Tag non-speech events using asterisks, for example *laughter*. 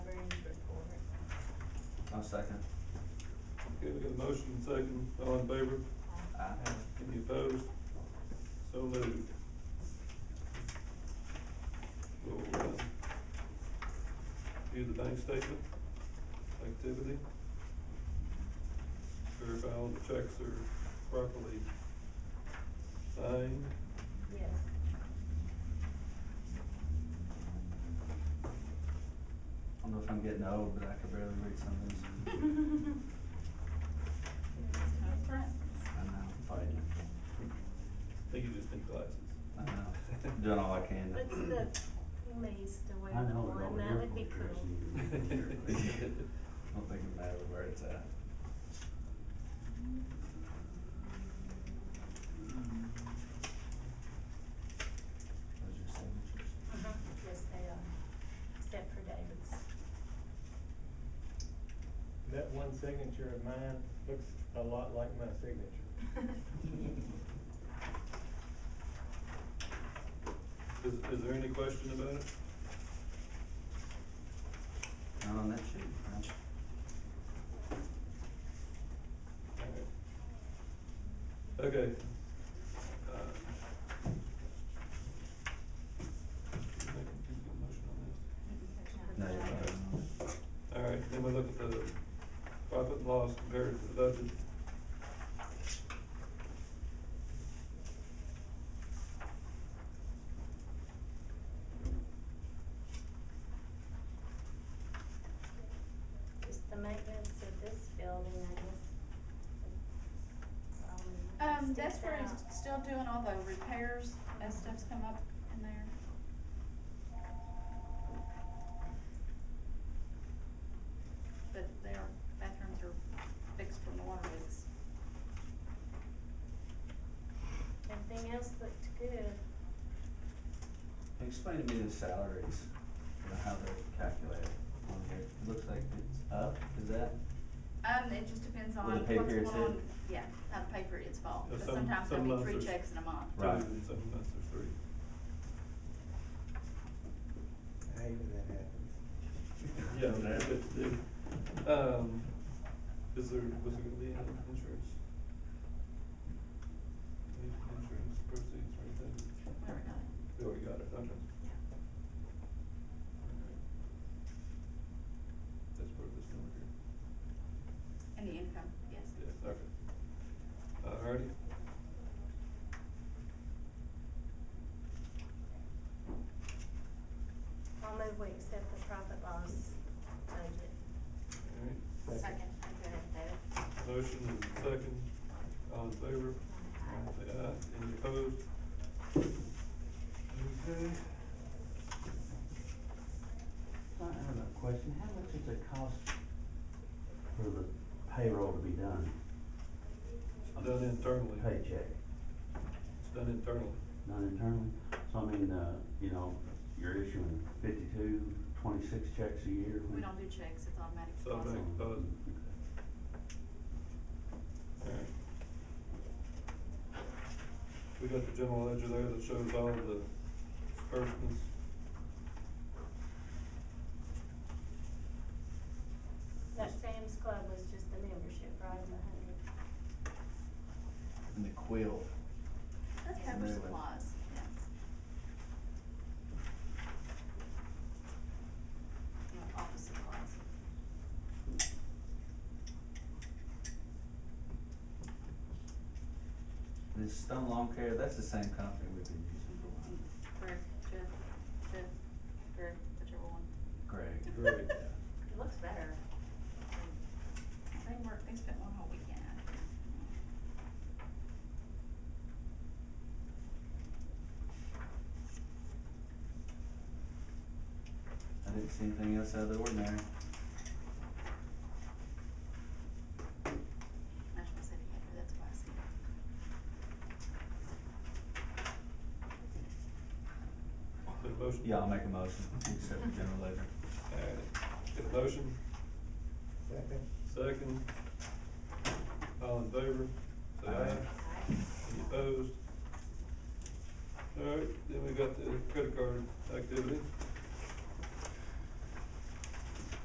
I'll second. Okay, we got a motion and second, all in favor, Aye. any opposed? So moved. We'll, uh, view the bank statement, activity. Verify all the checks are properly signed. Yes. I don't know if I'm getting old, but I could barely read some *laughs* of these. I know, I'm fighting. I think you just need glasses. I know, *laughs* doing all I can. What's the, you may still wear I know, one, they're that would all be cool. I don't think it matters where it's at. *laughs* Those are signatures. Uh-huh. Yes, they are, except for David's. That one signature of mine looks a lot like my signature. *laughs* Is, is there any question about it? Not on that sheet, right? Okay. Uh, No, you're not. All right, then we look at the profit and loss compared to the budget. Just the maintenance of this building, I guess. probably Um, that's sticks where he's out. still doing all the repairs, that stuff's come up in there. But their bathrooms are fixed from the water leaks. Everything else looked good. Explain to me the salaries, you know, how they're calculated on here. It looks like it's up, is that? Um, it just depends on Where the what's pay going period's on, hit. yeah, how the pay period's fall, Yeah, but some- sometimes some there'll be months three there's- checks in a month. Right. Two and some months or three. I hate when that happens. Yeah, that's it, dude. Um, is there, was there gonna be any insurance? Any Insurance proceeds or anything? Whatever it is. Oh, you got it, okay. Yeah. That's part of this number here. And the income, yes. Yeah, okay. Alrighty. I'll move we accept the profit loss budget. Alright. Second. Okay, Motion and second, all in favor? Say aye, any opposed? Okay. I have a question, how much does it cost for the payroll to be done, Done internally. paycheck, It's done internally. done internally? So I mean, uh, you know, you're issuing fifty-two, twenty-six checks a year? Oh, We don't do checks, it's automatic So deposit. make- deposit. Alright. We got the general ledger there that shows all the disbursements. That Sam's Club was just the membership, right, the hundred? And the quill. That's Yeah. cover Anyway. supplies, yeah. You know, office supplies. This Stone Lawn Care, that's the same company we've been using for a while. *laughs* Greg, Jeff, Jeff, Greg, whichever one. Greg. Greg. It looks better. They worked, they spent one whole weekend out here. I didn't see anything else out of the ordinary. National City had her, that's why I see it. Got a motion? Yeah, I'll make a motion, to accept the general ledger. Alright, got a motion, Second. second. All in favor? Say aye. Aye. Any opposed? Alright, then we got the credit card activity.